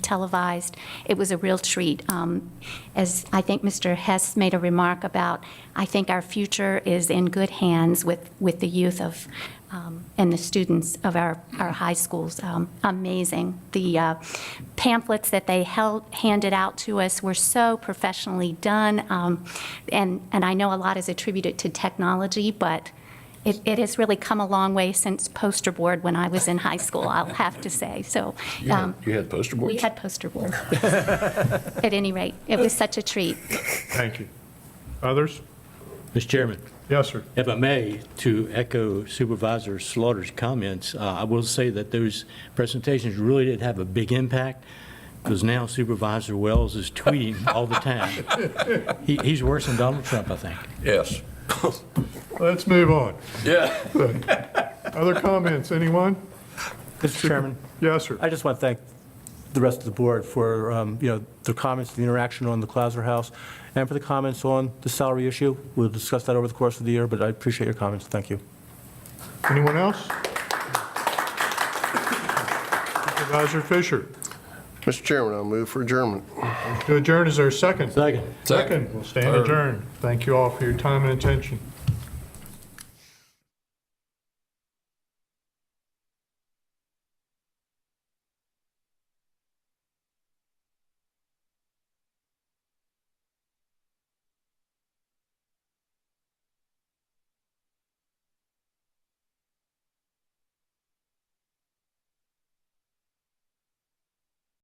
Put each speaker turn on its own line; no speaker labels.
televised. It was a real treat. Um, As I think Mr. Hess made a remark about, I think our future is in good hands with, with the youth of, um, and the students of our, our high schools. Um, Amazing. The uh, pamphlets that they held, handed out to us were so professionally done, Um, and, and I know a lot is attributed to technology, but it, it has really come a long way since poster board when I was in high school, I'll have to say, so.
You had,
um,
you had poster boards?
We had poster board. At any rate, it was such a treat.
Thank you. Others?
Mr. Chairman,
Yes, sir.
if I may, to echo Supervisor Slaughter's comments, uh, I will say that those presentations really did have a big impact, because now Supervisor Wells is tweeting all the time. He- He's worse than Donald Trump, I think.
Yes.
Let's move on.
Yeah.
Other comments, anyone?
Mr. Chairman,
Yes, sir.
I just want to thank the rest of the board for, um, you know, the comments, the interaction on the Clauser House, and for the comments on the salary issue. We'll discuss that over the course of the year, but I appreciate your comments. Thank you.
Anyone else? Supervisor Fisher,
Mr. Chairman, I'll move for adjournment.
to adjourn is our second.
Second.
Second, we'll stand
Third.
adjourned. Thank you all for your time and attention.